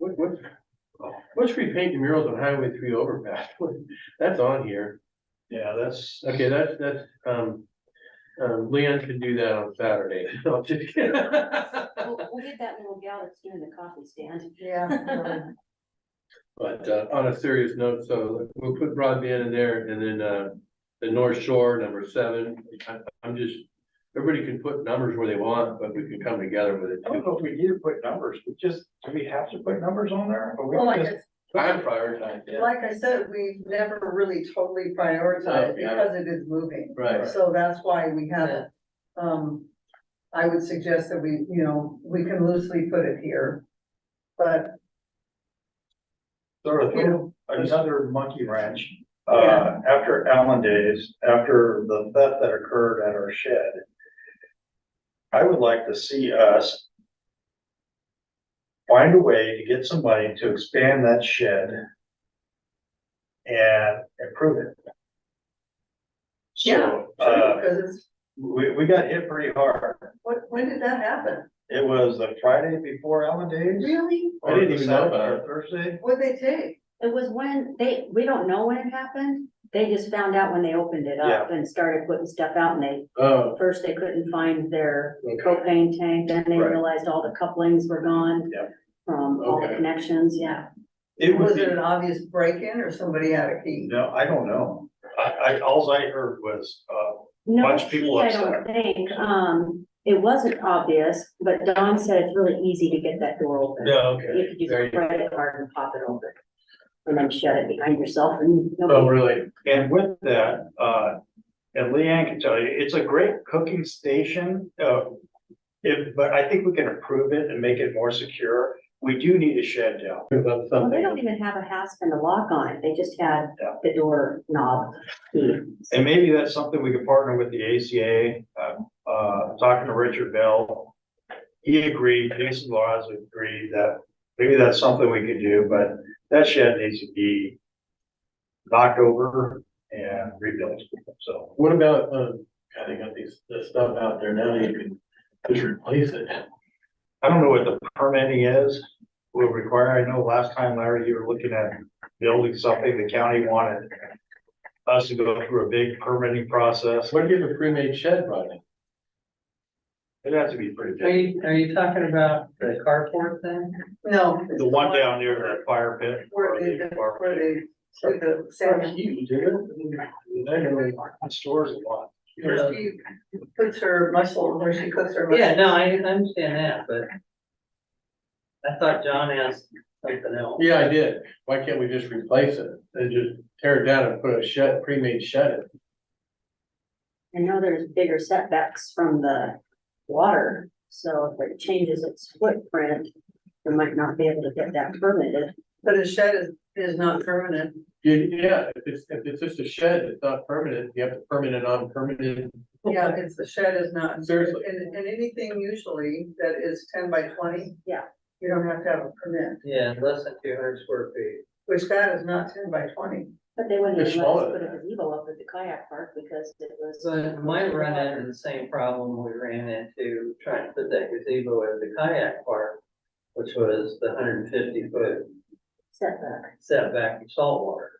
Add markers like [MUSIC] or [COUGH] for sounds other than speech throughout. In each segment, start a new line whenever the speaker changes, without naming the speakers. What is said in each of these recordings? Let's let's repaint the murals on Highway three overpass. [LAUGHS] That's on here.
Yeah, that's,
Okay, that's, that's, um, um, Leon can do that on Saturday. [LAUGHS] I'll just kidding.
We'll, we'll get that little gal that's doing the coffee stand.
[LAUGHS]
Yeah.
But, uh, on a serious note, so we'll put broadband in there and then, uh, the North Shore, number seven. I, I'm just, everybody can put numbers where they want, but we can come together with it
I don't
too.
know if we need to put numbers, we just, do we have to put numbers on there? Or we
Well, like,
just-
I-
I'm prioritizing. it.
like I said, we've never really totally
Oh,
prioritized
Yeah.
because it is moving.
Right.
So that's why we have, it. um, I would suggest that we, you know, we can loosely put it here. But,
Sort of
you know,
another monkey wrench. Uh,
Yeah.
after Allen days, after the theft that occurred at our shed. I would like to see us. Find a way to get some money to expand that shed. And improve it.
Yeah.
So, uh,
because it's,
we, we got hit pretty hard.
what, when did that happen?
It was the Friday before Allen days.
Really?
I didn't even know about
or
it.
Thursday.
What'd they take?
It was when they, we don't know when it happened. They just found out when they opened it up and started putting stuff out and they,
Oh,
first they couldn't find their
okay.
propane tank, then they
Right.
realized all the couplings were gone.
Yep.
From all the
Okay.
connections, yeah.
It would
Was
be-
it an obvious break-in or somebody had a key?
No, I don't know. I, I, alls I heard was, uh,
No,
Bunch of people
I don't think, um, it wasn't obvious, but Don said it's really easy to get that door open.
Yeah, okay.
You could use
There
a
you go.
credit card and pop it open. And then shut it behind yourself and
Oh,
nobody,
really?
and with that, uh, and Leanne can tell you, it's a great cooking station, uh, if, but I think we can improve it and make it more secure. We do need a shed down.
About
well, they don't
something.
even have a hasp and a lock on it. They just had
Yeah.
the door knob. key.
And maybe that's something we could partner with the ACA, uh, uh, talking to Richard Bell. He agreed, Jason Laws agreed that maybe that's something we could do, but that shed needs to be knocked over and rebuilt, so.
What about, um, God, they got these, this stuff out there now, you can just replace it.
I don't know what the permitting is, will require, I know last time Larry, you were looking at building something, the county wanted us to go through a big permitting process,
What if you have a pre-made shed, Rodney?
it'd have to be pretty
Are
big.
you, are you talking about the carport thing?
No.
The one down near the fire pit.
Where they, where they, to the salmon.
You do it. They're gonna be-
Stores a lot.
where she puts her muscle, where she cooks her.
Yeah,
mussel.
no, I I understand that, but I thought John asked something else.
Yeah, I did. Why can't we just replace it and just tear it down and put a shed, pre-made shed in?
I know there's bigger setbacks from the water, so if it changes its footprint, they might not be able to get that permitted.
But a shed is, is not permanent.
You- Yeah, if it's, if it's just a shed, it's not permanent. You have to permanent on permanent.
[LAUGHS] Yeah, it's, the shed is not.
Seriously.
And, and anything usually that is ten by twenty.
Yeah.
You don't have to have a permit,
Yeah, less than two hundred square feet.
which that is not ten by twenty.
But they wouldn't
It's
even let us
smaller
put
than
a
that.
gazebo up at the kayak park because it was.
So might run into the same problem we ran into trying to put that gazebo at the kayak park, which was the hundred and fifty foot
Setback,
setback from saltwater.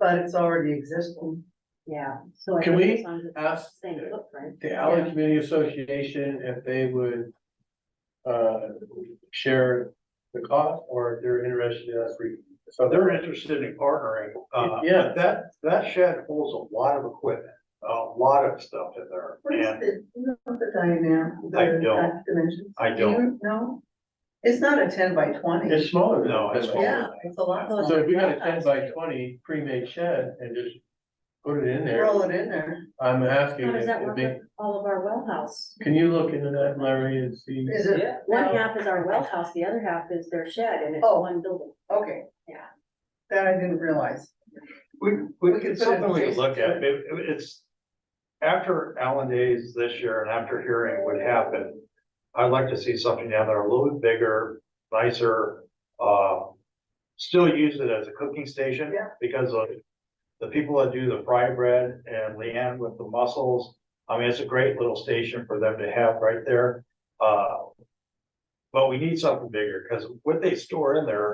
But it's already existing.
yeah, so. I
Can
think
we
as long as it's
ask-
Same footprint.
The Allen Community Association, if they would uh, share the cost or if they're interested in us. re- So
They're interested in partnering, uh,
Yeah.
but that, that shed holds a lot of equipment, a lot of stuff in there.
What is
And
the, you know, the diameter? the
I don't.
Dimensions?
I
Do
don't,
you know? It's not a ten by twenty.
It's smaller.
No,
than
it's
that.
smaller.
Yeah, it's a lot.
So
smaller.
if we got a ten by twenty pre-made shed and just put it in there,
Roll it in there.
I'm asking,
How does that
if
work
they-
with all of our well house?
can you look into that, Larry, and see?
Is it?
Yeah.
One half is our well house, the other half is their shed, and it's
Oh.
one building.
Okay.
Yeah.
That I didn't realize.
we,
We
we,
could
it's
put it
something we could look
adjacent
at, It- it- it's. After Allen Days this year and after hearing what happened, I'd like to see something down there a little bit bigger, nicer, uh. Still use it as a cooking station.
Yeah.
Because of the people that do the fry bread and Leanne with the mussels. I mean, it's a great little station for them to have right there, uh. But we need something bigger, cause what they store in there